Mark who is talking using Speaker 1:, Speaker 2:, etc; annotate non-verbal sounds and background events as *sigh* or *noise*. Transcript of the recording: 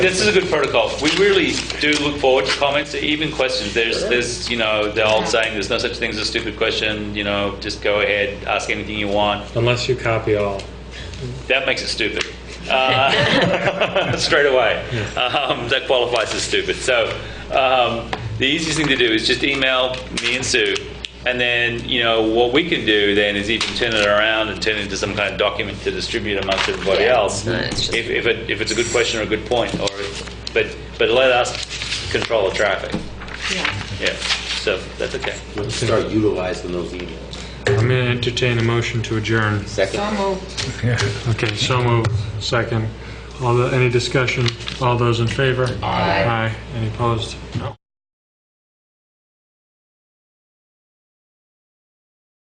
Speaker 1: This is a good protocol. We really do look forward to comments, even questions. There's, there's, you know, the old saying, there's no such thing as a stupid question, you know, just go ahead, ask anything you want.
Speaker 2: Unless you copy all.
Speaker 1: That makes it stupid. Uh, *laughs* straight away. Um, that qualifies as stupid. So um, the easiest thing to do is just email me and Sue. And then, you know, what we can do then is even turn it around and turn it into some kind of document to distribute amongst everybody
Speaker 3: Yeah,
Speaker 1: else.
Speaker 3: no, it's just-
Speaker 1: if, if, it, if it's a good question or a good point. or But, but let us control the traffic.
Speaker 3: Yeah.
Speaker 1: Yeah. So that's okay.
Speaker 4: Let's start utilizing those emails.
Speaker 2: I'm going to entertain a motion to adjourn.
Speaker 4: Second.
Speaker 3: So moved.
Speaker 2: Okay, so moved, second. All the, any discussion? All those in favor?
Speaker 3: Aye.
Speaker 2: Aye. Any opposed? No.